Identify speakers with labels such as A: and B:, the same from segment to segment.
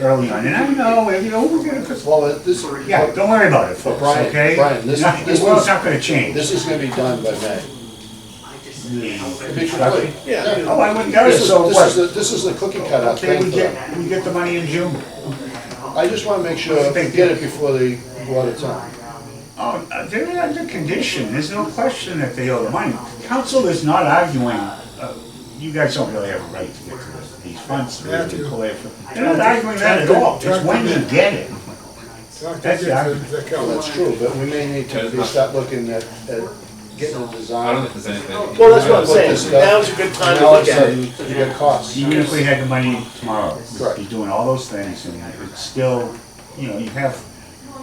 A: early on, and I know, you know, we're gonna, put-
B: Well, it- this, is-
A: yeah, don't worry about it, folks,
B: Brian,
A: okay?
B: Brian, this-
A: Not-
B: this
A: Well,
B: was-
A: it's not gonna change.
B: this is gonna be done by May. Commissioner Wood.
A: Okay.
B: Yeah.
A: Oh, I wouldn't
B: This
A: notice,
B: is,
A: so
B: this is,
A: what?
B: the- this is the cookie cutter
A: Okay,
B: thing
A: we
B: for them.
A: get, we get the money in June.
B: I just wanna make sure, we get it before the, before the time.
A: Oh, uh, they're under condition, there's no question that they owe the money. Council is not arguing, uh, you guys don't really have a right to get to this- these funds. They're
C: Matthew.
A: not arguing that at all, it's when you get it.
C: Talk to
A: That's the
C: the,
A: argument.
C: the
B: Well,
C: council.
B: that's true, but we may need to be start looking at, at getting a
D: I don't
B: design.
D: think there's anything.
E: Well, that's what I'm
B: Put this
E: saying,
B: stuff-
E: now's a good time to
B: now all of
E: look at it.
B: a sudden, You get costs.
A: Even if we had the money tomorrow, we'd be
B: Correct.
A: doing all those things and it's still, you know, you have,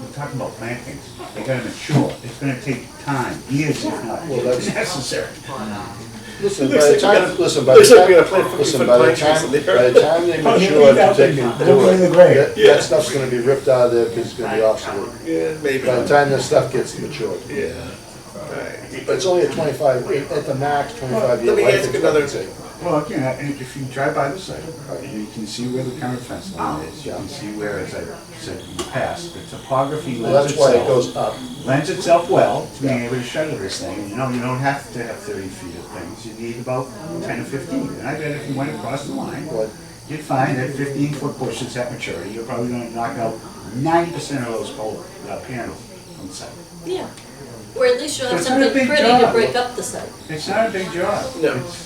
A: we're talking about plantings. They gotta mature, it's gonna take time, years if not
B: Well, that's-
A: necessary.
B: Listen, by
E: Looks
B: the
E: like we
B: time,
E: gotta-
B: listen, by the
E: looks like we gotta plant
B: time,
E: fifty
B: listen,
E: foot
B: by the
E: pine trees
B: time,
E: in there.
B: by the time they
A: Oh, you
B: mature,
A: leave out
B: they
A: the-
B: can
A: don't
B: do
A: put
B: it.
A: it in the grave.
B: That, that stuff's gonna be ripped out of there, because it's gonna be obsolete.
E: Yeah, maybe.
B: By the time this stuff gets matured.
E: Yeah. Alright.
B: But it's only a twenty-five, at the max, twenty-five year
E: Let me
B: life
E: ask another-
B: expectancy.
A: Well, again, I- and if you drive by the site, you can see where the current fence line is, you can see where, as I said in the past, the topography
B: Well,
A: lends
B: that's why it
A: itself,
B: goes up.
A: lends itself well to being able to shutter this thing, you know, you don't have to have thirty feet of things, you need about ten or fifteen, and I bet if you went across the line,
B: What-
A: you'd find that fifteen foot bushes at maturity, you're probably gonna knock out ninety percent of those pole, uh, panels on site.
F: Yeah. Or at least you'll have
A: It's not a
F: something
A: big
F: pretty
A: job.
F: to break up the site.
A: It's not a big job.
E: No.
A: It's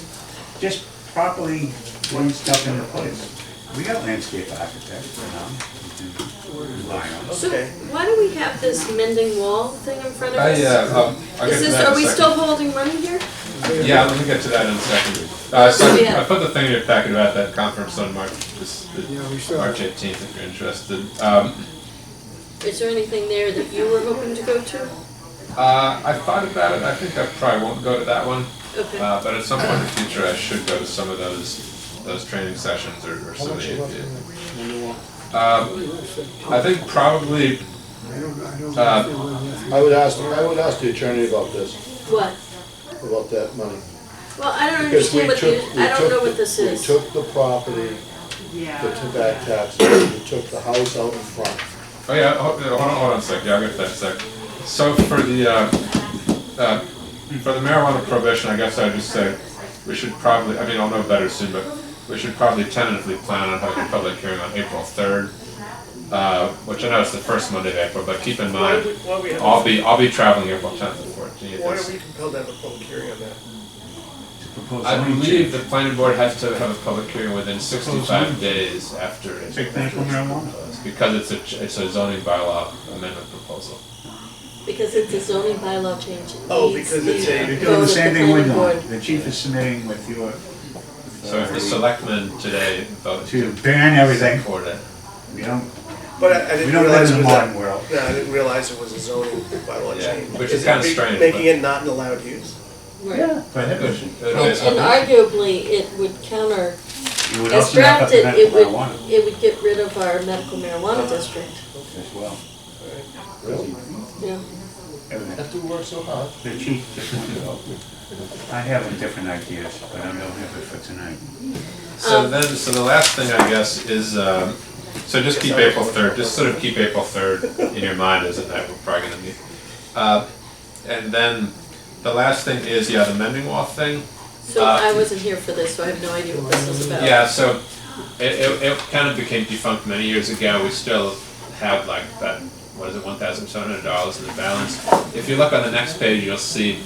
A: Just properly doing stuff into place. We got landscape architects, you know, we can rely on.
F: So
E: Okay.
F: why do we have this mending wall thing in front of
D: I,
F: us?
D: uh, I'll- I'll get
F: Is
D: to
F: this,
D: that in
F: are
D: a
F: we
D: second.
F: still holding money here?
D: Yeah, let me get to that in a second. Uh, so
F: Oh, Yeah.
D: I put the thing in your packet about that conference on March, this, the,
C: Yeah, we still-
D: March eighteenth, if you're interested. Um,
F: Is there anything there that you were hoping to go to?
D: uh, I thought about it, I think I probably won't go to that one,
F: Okay.
D: uh, but at some point in the future, I should go to some of those, those training sessions or, or
B: How
D: some of
B: much
D: the.
B: is left in
D: the-
B: the- in the wall?
D: Um, I think probably,
C: I don't, I don't.
D: Uh,
B: I would ask, I would ask the attorney about this,
F: What?
B: about that money.
F: Well, I don't
B: Because we
F: understand what the,
B: took- we
F: I don't
B: took
F: know
B: the-
F: what this is.
B: We took the property, the tobacco taxes, we took the house out in front.
D: oh yeah, hold, hold on, hold on a sec, yeah, I'll get to that in a sec. So for the, uh, uh, for the marijuana prohibition, I guess I'd just say, we should probably, I mean, I'll know better soon, but we should probably tentatively plan on having a public hearing on April third, uh, which I know is the first Monday of April, but keep in
E: Why
D: mind,
E: do we, why we have,
D: I'll
E: why
D: be, I'll be traveling April tenth and fourteenth.
E: are we compelled to have a public hearing on that?
A: Propose
D: I
A: zoning change.
D: believe the planning board has to have a public hearing within sixty-five days after. it's
A: Take that from marijuana.
D: proposed, Because it's a, ch- it's a zoning bylaw amendment proposal.
F: Because it's a zoning bylaw change. It
E: Oh,
F: needs
E: because it's
F: to
E: a-
A: You're
F: go
A: doing the
F: with
A: same thing we're
F: planning
A: doing.
F: board.
A: The chief is submitting with your,
D: So
A: Uh,
D: if the selectmen today vote
A: to
D: to
A: ban everything.
D: support it, uh,
A: We don't,
E: But I, I
A: we
E: didn't
A: don't live
E: realize
A: in
E: it
A: the
E: was
A: modern
E: a,
A: world.
E: no, I didn't realize it was a zoning bylaw
D: Yeah,
E: change.
D: which is
E: it
D: kinda
E: ma-
D: strange,
E: Making
D: but-
E: it not an allowed use.
F: Right.
A: Prohibition.
D: it
F: And
D: is-
F: and arguably, it would counter,
A: You would
F: as
A: also knock up the
F: drafted, it
A: medical
F: would,
A: marijuana
F: it would get rid of our medical marijuana district.
A: as well.
B: Really?
F: Yeah.
A: Everything.
B: Have to work so hard.
A: The chief just wanted to help. I have different ideas, but I don't have it for tonight.
D: So
F: Um,
D: then, so the last thing I guess is, um, so just keep April third, just sort of keep April third in your mind as a night we're probably gonna meet. Uh, and then the last thing is, yeah, the mending wall thing.
F: So
D: Uh,
F: I wasn't here for this, so I have no idea what this was about.
D: Yeah, so it, it, it kind of became defunct many years ago. We still have like that, what is it, one thousand seven hundred dollars in the balance. If you look on the next page, you'll see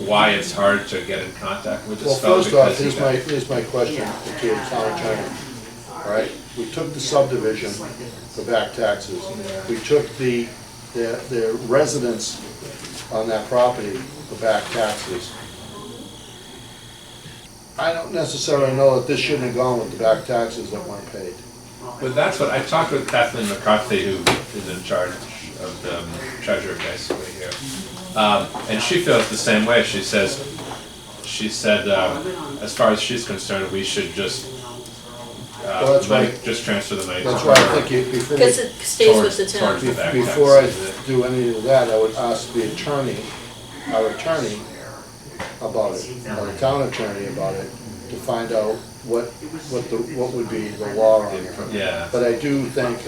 D: why it's hard to get in contact with
B: Well,
D: this fellow
B: first off,
D: because he
B: here's my,
D: got-
B: here's my question to the town attorney. All right, we took the subdivision, the back taxes, we took the, the the residents on that property, the back taxes. I don't necessarily know that this shouldn't have gone with the back taxes that weren't paid.
D: But that's what, I talked with Kathleen McCarthy, who is in charge of the um, treasurer basically here. Um, and she feels the same way. She says, she said, um, as far as she's concerned, we should just,
B: Well,
D: uh,
B: that's
D: money-
B: right.
D: just transfer the money. to
B: That's why I
D: her.
B: think you, before,
F: Because
B: we-
F: it stays with the
D: Towards-
F: town.
D: towards-
B: be- before I do any of that, I would ask the attorney, our attorney, about it, or the town attorney about it, to find out what, what the, what would be the law on it.
D: Yeah.
B: But I do think